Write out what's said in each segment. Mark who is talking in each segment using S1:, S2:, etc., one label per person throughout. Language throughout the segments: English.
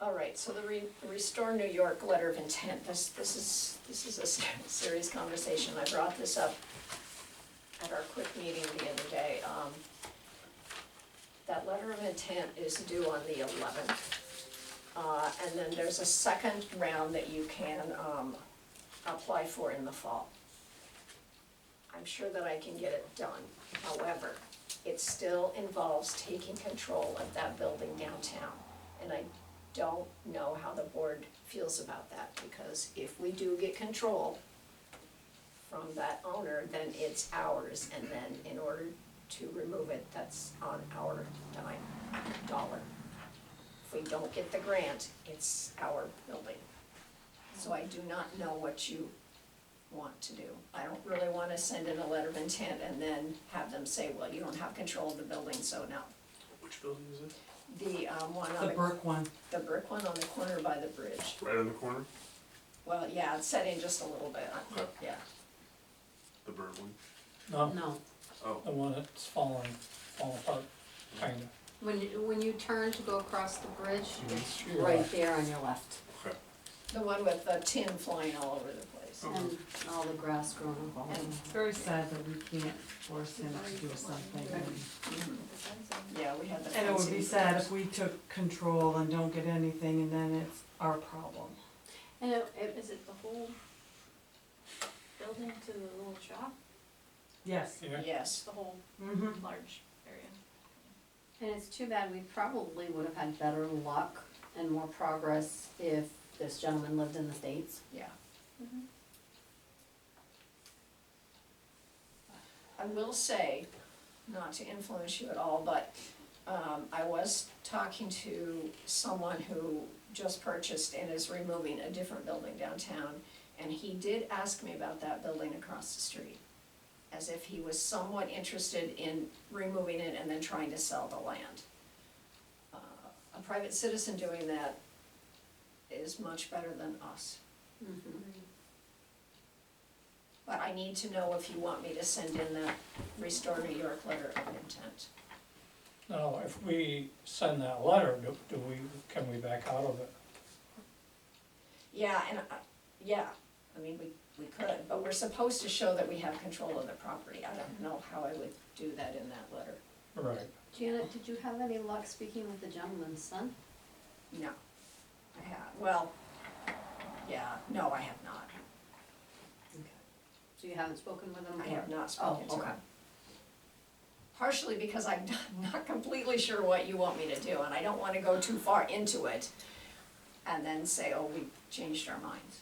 S1: All right, so the Re- Restore New York letter of intent, this, this is, this is a se- serious conversation. I brought this up at our quick meeting the other day. Um, That letter of intent is due on the eleventh. Uh, And then there's a second round that you can um, apply for in the fall. I'm sure that I can get it done. However, it still involves taking control of that building downtown. And I don't know how the board feels about that, because if we do get control from that owner, then it's ours, and then in order to remove it, that's on our dime, dollar. If we don't get the grant, it's our building. So I do not know what you want to do. I don't really wanna send in a letter of intent and then have them say, well, you don't have control of the building, so no.
S2: Which building is it?
S1: The, um, one on
S3: The
S1: the
S3: Burke one,
S1: the brick one on the corner by the bridge.
S2: Right on the corner,
S1: Well, yeah, it's set in just a little bit, uh, yeah.
S2: the bird one.
S4: No,
S5: No,
S2: Oh,
S4: the one that's falling, falling apart, kinda.
S5: when, you- when you turn to go across the bridge,
S3: Mm-hmm.
S5: it's
S4: Your
S5: right
S4: left.
S5: there on your left,
S2: okay.
S1: The one with the tin flying all over the place.
S5: and all the grass growing up all
S1: And,
S3: it's very sad that we can't force him to do something.
S1: yeah, we had the fencing.
S3: And it would be sad if we took control and don't get anything and then it's our problem.
S5: And it, it,
S6: Is it the whole building to the little shop?
S3: Yes.
S4: Yeah,
S6: It's
S1: Yes,
S6: the whole
S3: Mm-hmm.
S6: large area?
S5: and it's too bad, we probably would have had better luck and more progress if this gentleman lived in the States.
S1: yeah. Mm-hmm. I will say, not to influence you at all, but um, I was talking to someone who just purchased and is removing a different building downtown, and he did ask me about that building across the street, as if he was somewhat interested in removing it and then trying to sell the land. Uh, A private citizen doing that is much better than us.
S5: Mm-hmm.
S1: But I need to know if you want me to send in that Restore New York letter of intent.
S4: Now, if we send that letter, do, do we, can we back out of it?
S1: Yeah, and, I- yeah, I mean, we, we could, but we're supposed to show that we have control of the property. I don't know how I would do that in that letter.
S4: Right,
S5: Janet, did you have any luck speaking with the gentleman's son?
S1: No. I have, well, yeah, no, I have not.
S5: So you haven't spoken with him?
S1: I have
S5: or-
S1: not spoken to
S5: Oh,
S1: him.
S5: okay.
S1: Partially because I'm not- not completely sure what you want me to do, and I don't wanna go too far into it and then say, oh, we changed our minds.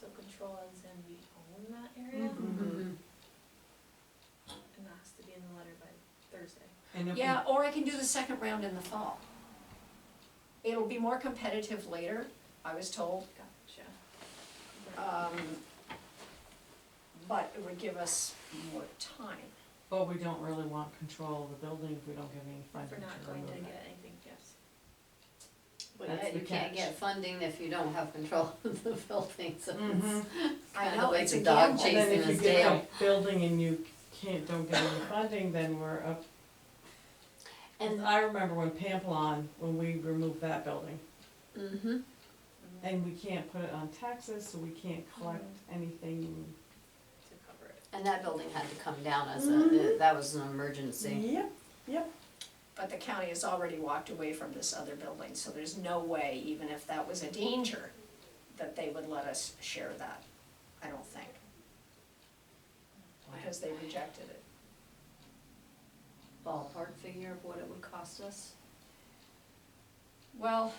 S6: So control is in we own that area, Mm-hmm.
S5: Mhm.
S6: and that has to be in the letter by Thursday.
S3: And if we,
S1: Yeah, or I can do the second round in the fall. It'll be more competitive later, I was told,
S6: Gotcha.
S1: um, but it would give us more time.
S3: but we don't really want control of the building if we don't give any
S6: We're
S3: funding
S6: not
S3: to
S6: going
S3: remove
S6: to
S3: it.
S6: get anything, yes.
S5: But
S3: That's
S5: yet
S3: the
S5: you can't
S3: catch.
S5: get funding if you don't have control of the building, so
S3: Mhm.
S5: it's
S1: I
S5: kind
S1: know,
S5: of like
S1: it's
S5: the
S1: a
S5: dog
S1: gamble.
S3: And then
S5: chasing
S3: if you
S5: his
S3: get
S5: tail.
S3: a building and you can't, don't get any funding, then we're up.
S5: And,
S3: I remember when Pamplon, when we removed that building,
S5: mhm.
S3: and we can't put it on taxes, so we can't collect
S6: Mm-hmm.
S3: anything.
S6: To cover it.
S5: And that building had to come down as a, that was an emergency.
S3: Yep, yep.
S1: But the county has already walked away from this other building, so there's no way, even if that was a danger, that they would let us share that, I don't think, because they rejected it.
S5: Ballpark figure of what it would cost us.
S1: Well,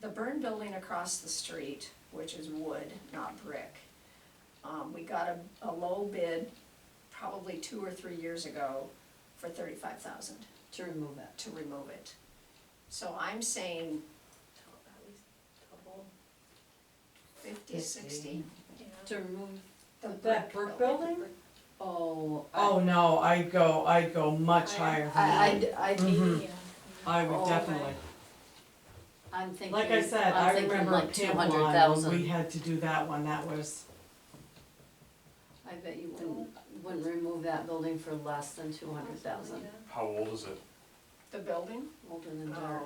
S1: the burn building across the street, which is wood, not brick, um, we got a, a low bid probably two or three years ago for thirty-five thousand
S5: To remove it.
S1: to remove it. So I'm saying
S6: So at least the whole,
S1: fifty, sixty,
S6: you know.
S5: To remove,
S1: the brick
S3: That brick building?
S5: oh. I-
S3: Oh, no, I'd go, I'd go much
S6: I-
S3: higher than
S5: I,
S3: that.
S5: I'd- I'd
S3: Mhm.
S5: be,
S6: Yeah.
S3: I would
S5: oh,
S3: definitely.
S5: right. I'm thinking,
S3: Like I said, I
S5: I'm thinking
S3: remember
S5: like two hundred
S3: Pamplon, when we
S5: thousand.
S3: had to do that one, that was,
S5: I bet you wouldn't, wouldn't remove that building for less than two hundred thousand.
S6: Yeah.
S2: How old is it?
S1: the building?
S5: Older than
S1: Oh.
S5: dirt.